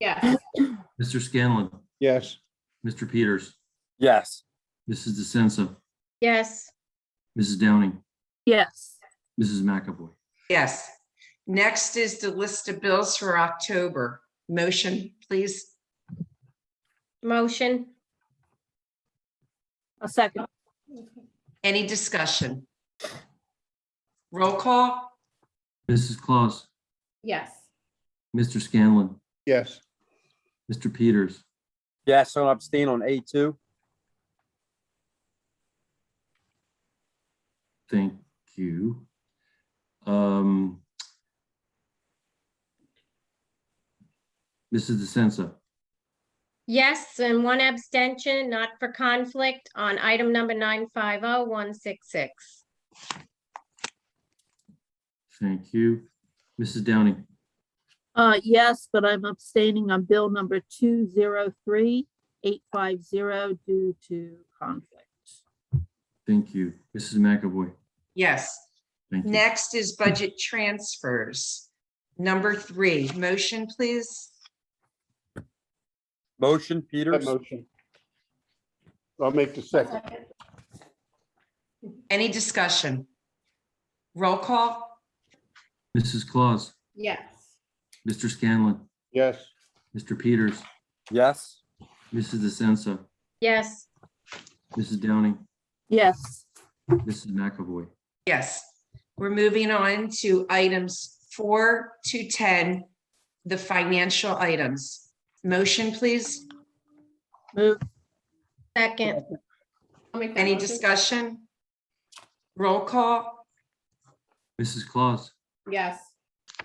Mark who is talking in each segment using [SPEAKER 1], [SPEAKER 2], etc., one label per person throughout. [SPEAKER 1] Yes.
[SPEAKER 2] Mr. Scanlon,
[SPEAKER 3] Yes.
[SPEAKER 2] Mr. Peters,
[SPEAKER 4] Yes.
[SPEAKER 2] Mrs. DeSenza,
[SPEAKER 1] Yes.
[SPEAKER 2] Mrs. Downing,
[SPEAKER 5] Yes.
[SPEAKER 2] Mrs. McAvoy.
[SPEAKER 6] Yes. Next is the list of bills for October. Motion, please.
[SPEAKER 1] Motion.
[SPEAKER 5] A second.
[SPEAKER 6] Any discussion? Roll call?
[SPEAKER 2] Mrs. Claus,
[SPEAKER 1] Yes.
[SPEAKER 2] Mr. Scanlon,
[SPEAKER 3] Yes.
[SPEAKER 2] Mr. Peters,
[SPEAKER 4] Yes, so abstain on A two.
[SPEAKER 2] thank you. Um, Mrs. DeSenza,
[SPEAKER 1] Yes, and one abstention, not for conflict, on item number oh, 950166.
[SPEAKER 2] thank you. Mrs. Downing,
[SPEAKER 5] Uh, yes, but I'm abstaining on bill number two zero three eight five zero due to conflict.
[SPEAKER 2] thank you. Mrs. McAvoy,
[SPEAKER 6] Yes.
[SPEAKER 2] thank you.
[SPEAKER 6] Next is budget transfers. Number three, motion, please.
[SPEAKER 4] Motion,
[SPEAKER 3] That
[SPEAKER 4] Peters?
[SPEAKER 3] motion. I'll make the second.
[SPEAKER 6] Any discussion? Roll call?
[SPEAKER 2] Mrs. Claus,
[SPEAKER 1] Yes.
[SPEAKER 2] Mr. Scanlon,
[SPEAKER 3] Yes.
[SPEAKER 2] Mr. Peters,
[SPEAKER 4] Yes.
[SPEAKER 2] Mrs. DeSenza,
[SPEAKER 1] Yes.
[SPEAKER 2] Mrs. Downing,
[SPEAKER 5] Yes.
[SPEAKER 2] Mrs. McAvoy.
[SPEAKER 6] Yes. We're moving on to items four to 10, the financial items. Motion, please.
[SPEAKER 5] Move.
[SPEAKER 1] Second.
[SPEAKER 6] Any discussion? Roll call?
[SPEAKER 2] Mrs. Claus,
[SPEAKER 1] Yes.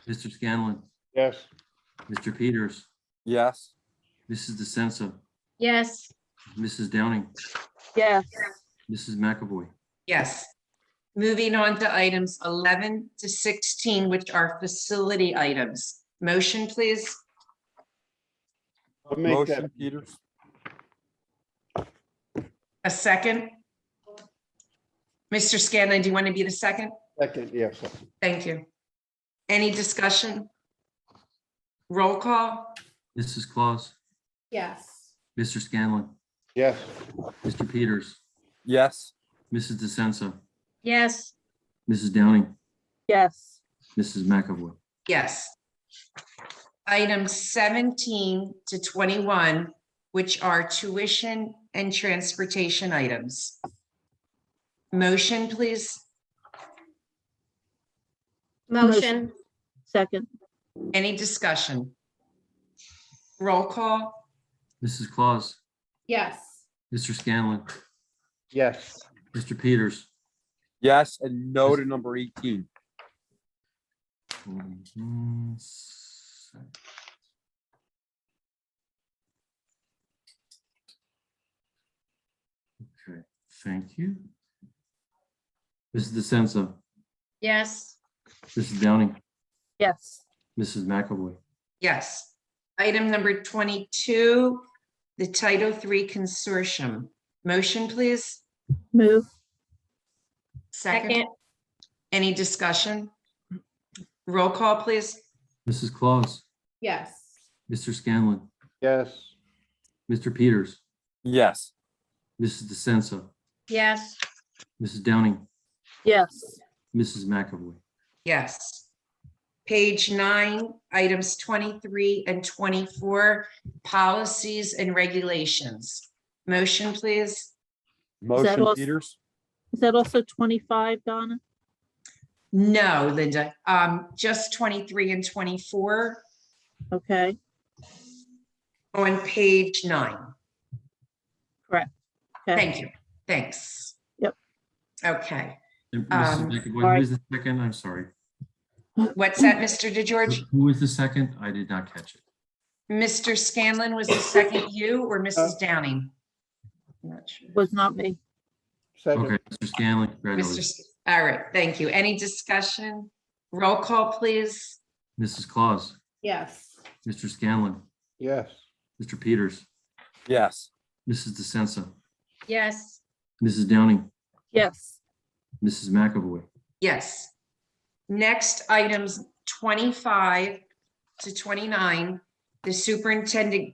[SPEAKER 2] Mr. Scanlon,
[SPEAKER 3] Yes.
[SPEAKER 2] Mr. Peters,
[SPEAKER 4] Yes.
[SPEAKER 2] Mrs. DeSenza,
[SPEAKER 1] Yes.
[SPEAKER 2] Mrs. Downing,
[SPEAKER 5] Yes.
[SPEAKER 2] Mrs. McAvoy.
[SPEAKER 6] Yes. Moving on to items 11 to 16, which are facility items. Motion, please.
[SPEAKER 3] I'll make that.
[SPEAKER 4] Motion, Peters?
[SPEAKER 6] A second? Mr. Scanlon, do you want to be the second?
[SPEAKER 3] Second, yes. second.
[SPEAKER 6] Thank you. Any discussion? Roll call?
[SPEAKER 2] Mrs. Claus,
[SPEAKER 1] Yes.
[SPEAKER 2] Mr. Scanlon,
[SPEAKER 3] Yes.
[SPEAKER 2] Mr. Peters,
[SPEAKER 4] Yes.
[SPEAKER 2] Mrs. DeSenza,
[SPEAKER 1] Yes.
[SPEAKER 2] Mrs. Downing,
[SPEAKER 5] Yes.
[SPEAKER 2] Mrs. McAvoy.
[SPEAKER 6] Yes. Item 17 to 21, which are tuition and transportation items. Motion, please.
[SPEAKER 1] Motion.
[SPEAKER 5] Second.
[SPEAKER 6] Any discussion? Roll call?
[SPEAKER 2] Mrs. Claus,
[SPEAKER 1] Yes.
[SPEAKER 2] Mr. Scanlon,
[SPEAKER 3] Yes.
[SPEAKER 2] Mr. Peters.
[SPEAKER 4] Yes, and no to number eighteen.
[SPEAKER 2] Okay, thank you. Mrs. DeSenza,
[SPEAKER 1] Yes.
[SPEAKER 2] Mrs. Downing,
[SPEAKER 5] Yes.
[SPEAKER 2] Mrs. McAvoy.
[SPEAKER 6] Yes. Item number 22, the Title III Consortium. Motion, please.
[SPEAKER 5] Move.
[SPEAKER 1] Second.
[SPEAKER 6] Any discussion? Roll call, please.
[SPEAKER 2] Mrs. Claus,
[SPEAKER 1] Yes.
[SPEAKER 2] Mr. Scanlon,
[SPEAKER 3] Yes.
[SPEAKER 2] Mr. Peters,
[SPEAKER 4] Yes.
[SPEAKER 2] Mrs. DeSenza,
[SPEAKER 1] Yes.
[SPEAKER 2] Mrs. Downing,
[SPEAKER 5] Yes.
[SPEAKER 2] Mrs. McAvoy.
[SPEAKER 6] Yes. Page nine, items 23 and 24, policies and regulations. Motion, please.
[SPEAKER 4] Motion,
[SPEAKER 5] all-
[SPEAKER 4] Peters?
[SPEAKER 5] Is that also twenty-five, Donna?
[SPEAKER 6] No, Linda, um, just 23 and 24
[SPEAKER 5] Okay,
[SPEAKER 6] on page nine.
[SPEAKER 5] Okay.
[SPEAKER 6] Thank you. Thanks.
[SPEAKER 5] Yep.
[SPEAKER 6] Okay.
[SPEAKER 2] And
[SPEAKER 6] Um,
[SPEAKER 2] Mrs. McAvoy,
[SPEAKER 5] sorry.
[SPEAKER 2] who is the second? I'm sorry.
[SPEAKER 6] What's that, Mr. DeGeorge?
[SPEAKER 2] Who was the second? I did not catch it.
[SPEAKER 6] Mr. Scanlon was the second you or Mrs. Downing? I'm Not sure.
[SPEAKER 5] was not me.
[SPEAKER 3] Second.
[SPEAKER 2] Okay, Mr. Scanlon,
[SPEAKER 6] Mr.
[SPEAKER 2] congratulations.
[SPEAKER 6] S- All right, thank you. Any discussion? Roll call, please.
[SPEAKER 2] Mrs. Claus,
[SPEAKER 1] Yes.
[SPEAKER 2] Mr. Scanlon,
[SPEAKER 3] Yes.
[SPEAKER 2] Mr. Peters,
[SPEAKER 4] Yes.
[SPEAKER 2] Mrs. DeSenza,
[SPEAKER 1] Yes.
[SPEAKER 2] Mrs. Downing,
[SPEAKER 5] Yes.
[SPEAKER 2] Mrs. McAvoy.
[SPEAKER 6] Yes. Next, items 25 to 29 The superintendent